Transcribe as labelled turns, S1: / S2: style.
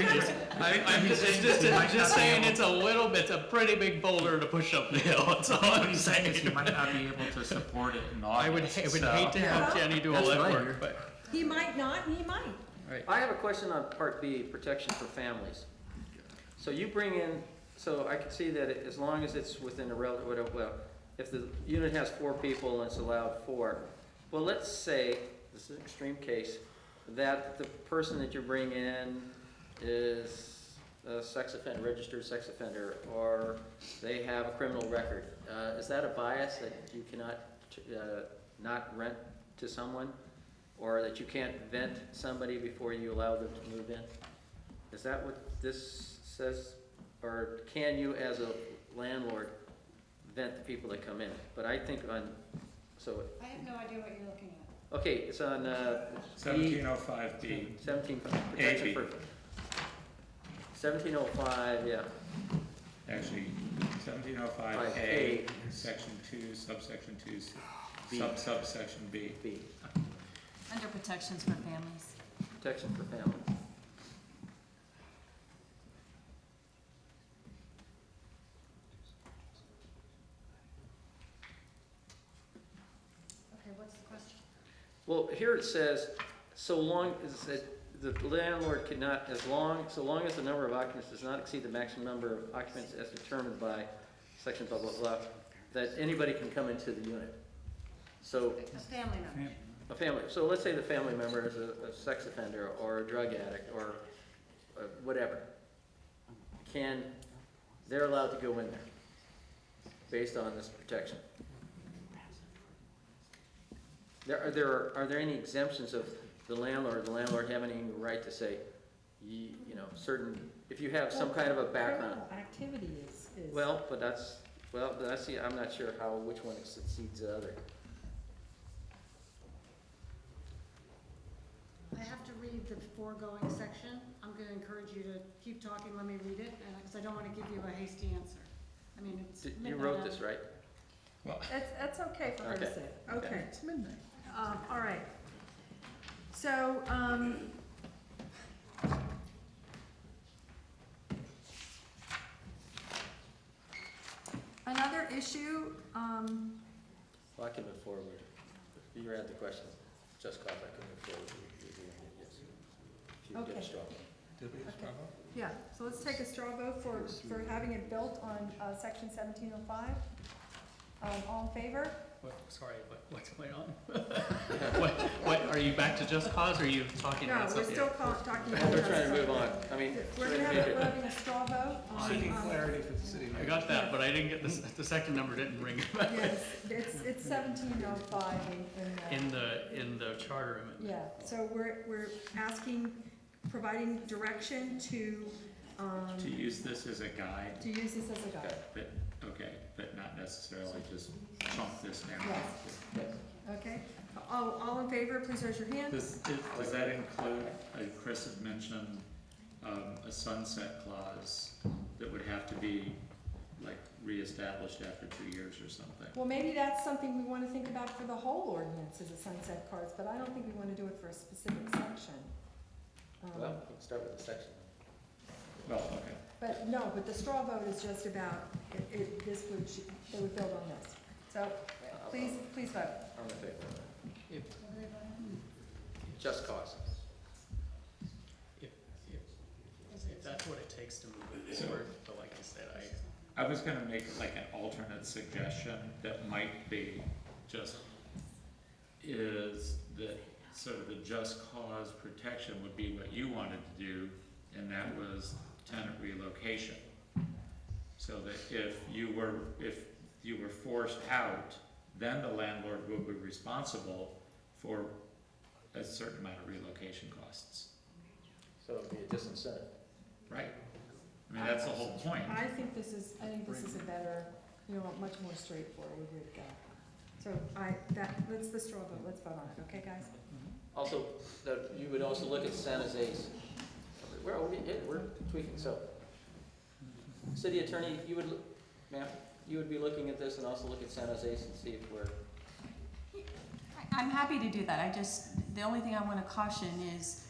S1: I, I'm just, it's just, I'm just saying it's a little bit, it's a pretty big boulder to push up the hill, that's all I'm
S2: He's saying is he
S1: saying.
S2: might not be able to support it in
S1: I would,
S2: August,
S1: I would
S2: so-
S1: hate to have Jenny do all
S3: That's
S1: that
S3: fine.
S1: work, but,
S4: He might not, and he might.
S3: I have a question on part B, protection for families. So you bring in, so I can see that as long as it's within a relative, whatever, well, if the unit has four people and it's allowed four, well, let's say, this is an extreme case, that the person that you bring in is a sex offender, registered sex offender, or they have a criminal record. Uh, is that a bias that you cannot, uh, not rent to someone? Or that you can't vent somebody before you allow them to move in? Is that what this says? Or can you, as a landlord, vent the people that come in? But I think on, so,
S5: I have no idea what you're looking at.
S3: okay, it's on, uh. E-
S2: Seventeen oh five B.
S3: Seventeen, protection
S2: AB.
S3: for. Seventeen oh five, yeah,
S2: Actually, seventeen oh five
S3: Five
S2: A,
S3: A.
S2: section two, subsection two, s-
S3: B.
S2: sub subsection B.
S3: B,
S5: Under protections for families.
S3: protection for family.
S5: Okay, what's the question?
S3: Well, here it says, so long as, it- the landlord cannot, as long, so long as the number of occupants does not exceed the maximum number of occupants as determined by section blah, blah, blah, that anybody can come into the unit. So,
S5: A family member.
S3: a family, so let's say the family member is a, a sex offender, or a drug addict, or uh, whatever. Can, they're allowed to go in there, based on this protection. There, are there, are- are there any exemptions of the landlord, the landlord having any right to say, you, you know, certain, if you have some kind of a background?
S4: Criminal Activity is, is.
S3: Well, but that's, well, but that's, the- I'm not sure how, which one succeeds the other.
S5: I have to read the foregoing section. I'm gonna encourage you to keep talking, let me read it, and, because I don't wanna give you a hasty answer. I mean, it's
S3: Did-
S5: midnight.
S3: You wrote
S5: hour.
S3: this, right?
S6: That's, that's okay for her
S3: Okay.
S6: to say. Okay,
S3: Okay.
S6: um, all right. So, um. Another issue, um,
S3: Well, I can move forward. You read the question, just cause I can move forward. You- you- you- yes. If you get a
S6: Okay.
S3: straw.
S6: yeah, so let's take a straw vote for, for having it built on, uh, section seventeen oh five. Um, all in favor?
S1: what, sorry, what, what's going on? What, what, are you back to just cause, or are you talking
S6: No,
S1: about
S6: we're
S1: something?
S6: still ca- talking about.
S3: We're trying
S6: that.
S3: to move on, I mean.
S6: We're gonna have, we're having a straw vote on. um,
S2: Seeking
S6: on-
S2: clarity for the city.
S1: I got that, but I didn't get, the, s- the second number didn't ring
S6: Yes, it's, it's seventeen oh five in,
S1: in the, in the charter amendment.
S6: yeah, so we're, we're asking, providing direction to, um,
S2: To use this as a guide,
S6: to use this as a guide.
S2: but, okay, but not necessarily just chunk this
S6: Yes.
S2: down.
S6: Okay, all, all in favor, please raise your hand.
S2: Does, is- does that include, uh, Chris had mentioned, um, a sunset clause that would have to be like reestablished after two years or something?
S6: Well, maybe that's something we wanna think about for the whole ordinance as a sunset cards, but I don't think we wanna do it for a specific section. Um,
S3: Well, we can start with the section.
S2: Well, okay.
S6: But no, but the straw vote is just about, it, it, this would, sh- they would build on this. So, please, please vote.
S3: I'm in favor.
S5: Everybody?
S3: Just cause.
S1: If that's what it takes to move it forward, but like I said, I,
S2: I was gonna make like an alternate suggestion that might be just, is that sort of the just cause protection would be what you wanted to do, and that was tenant relocation. So that if you were, if you were forced out, then the landlord would be responsible for a certain amount of relocation costs,
S3: So it'd be a disincentive.
S2: right? I mean, that's the whole point.
S6: I think this is, I think this is a better, you know, much more straightforward way to go. So I, that, let's, the straw vote, let's vote on it, okay, guys?
S3: Also, that, you would also look at San Jose's. Where are we, yeah, we're tweaking, so. City attorney, you would, look- ma'am, you would be looking at this and also look at San Jose's and see if we're
S7: I- I'm happy to do that, I just, the only thing I wanna caution is,